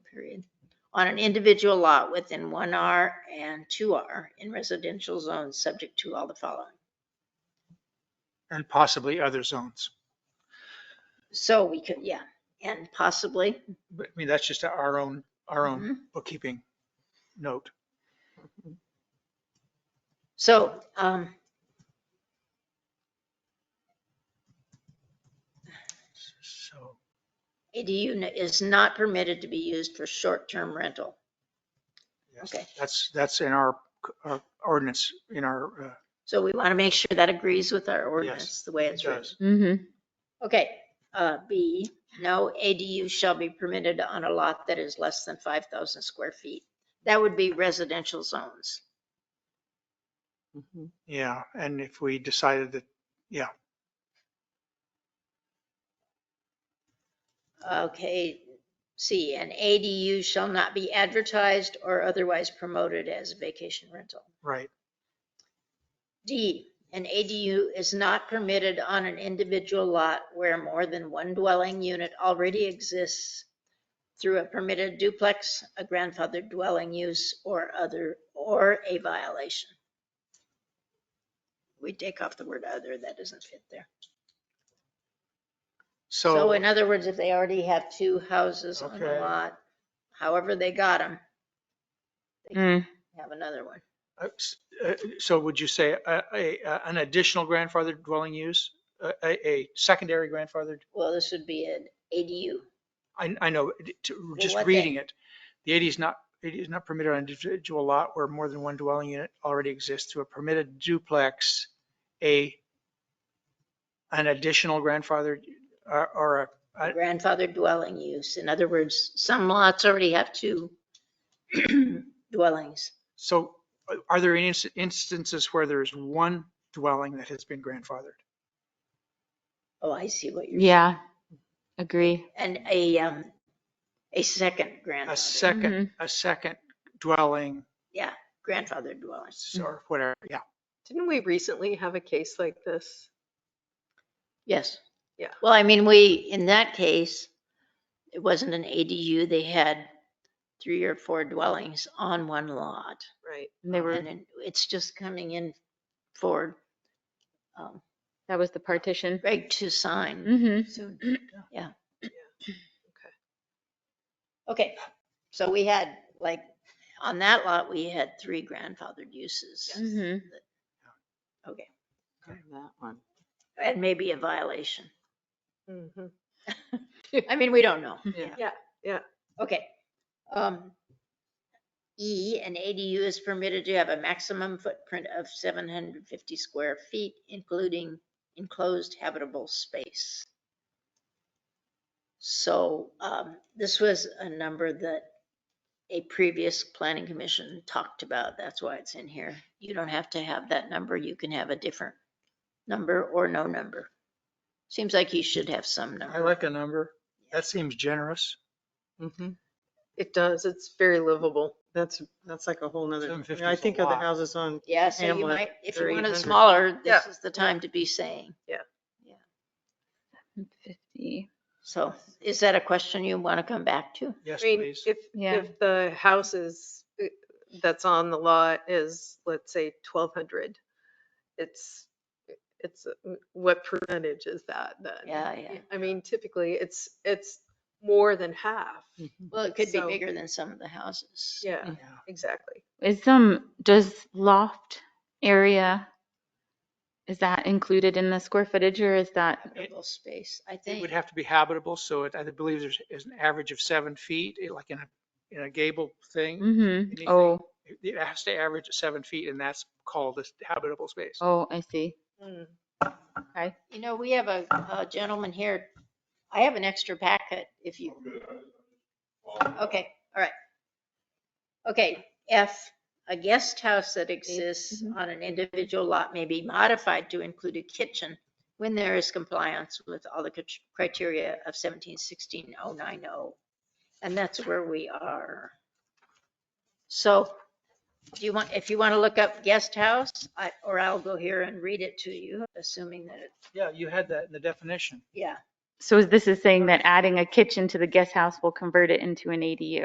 on an individual lot within one R and two R in residential zones, subject to all the following. and possibly other zones. So we could, yeah, and possibly. But I mean, that's just our own, our own Mhm. bookkeeping note. So, um, So ADU n- is not permitted to be used for short-term rental. yes, Okay. that's, that's in our, our ordinance, in our, uh, So we want to make sure that agrees with our ordinance, the way it's it written. does. Mm-hmm. Okay, uh, B, no ADU shall be permitted on a lot that is less than five thousand square feet. That would be residential zones. Yeah, and if we decided that, yeah, Okay, C, an ADU shall not be advertised or otherwise promoted as a vacation rental. right, D, an ADU is not permitted on an individual lot where more than one dwelling unit already exists through a permitted duplex, a grandfathered dwelling use, or other, or a violation. We take off the word other, that doesn't fit there. So so, in other words, if they already have two houses on Okay. a lot, however they got them, Mm. have another one. uh, s- uh, so would you say a, a, a- an additional grandfathered dwelling use? A, a- a secondary grandfathered? Well, this would be an ADU. I, I know, it- to- just what they- reading it, the AD is not, it is not permitted on individual lot where more than one dwelling unit already exists to a permitted duplex, a, an additional grandfather or, or a, I- grandfather dwelling use. In other words, some lots already have two dwellings. so uh, are there any ins- instances where there is one dwelling that has been grandfathered? Oh, I see what you're, Yeah. Agree. and a, um, a second A grandfather, second, Mm-hmm. a second dwelling grandfather dwelling. Mm-hmm. or whatever, yeah. Didn't we recently have a case like this? Yes. Yeah. Well, I mean, we, in that case, it wasn't an ADU. They had three or four dwellings on one lot. Right. And they were, And then it's just coming in for, um, that was the partition. Greg to sign Mm-hmm. soon. Okay, so we had, like, on that lot, we had three grandfathered uses. Mhm. Okay, That one. and maybe a violation. Mhm. I mean, we don't know. Yeah. Yeah, yeah. Okay. Um, E, an ADU is permitted to have a maximum footprint of seven hundred fifty square feet, including enclosed habitable space. So, um, this was a number that a previous planning commission talked about. That's why it's in here. You don't have to have that number. You can have a different number or no number. Seems like you should have some I number. like a number. That seems generous. It does. It's very livable. Mm-hmm. That's, that's like a whole nother, 750 I is a think of the lot. houses on, Yeah, so you Hamlet, might, if or you want it 800. smaller, this Yeah. is the time to be saying. Fifty. So is that a question you want to come back to? Yes, I mean, please. if, Yeah. if the house is, uh, that's on the lot is, let's say, twelve hundred, it's, it's, uh, what percentage is that then? Yeah, yeah. I mean, typically, it's, it's more than half. Mm-hmm. Well, it could be So- bigger than some of the houses. Yeah, Mm-hmm. Yeah. exactly. Is um does loft area is that included in the square footage or is that Habitable space, I It think. would have to be habitable, so it, I believe there's, is an average of seven feet, eh, like in a, in a gable thing. mm-hmm. Anything. Oh, It- It has to average seven feet, and that's called a habitable space. oh, I see. Mm. You know, we have a a gentleman here. I have an extra packet if you. Okay, all right. Okay, F, a guest house that exists mhm. on an individual lot may be modified to include a kitchen when there is compliance with all the crit- criteria of seventeen sixteen oh nine oh. And that's where we are. So do you want, if you want to look up guest house, I, or I'll go here and read it to you, assuming that it Yeah, you had that in the definition. yeah. So is this is saying that adding a kitchen to the guest house will convert it into an ADU?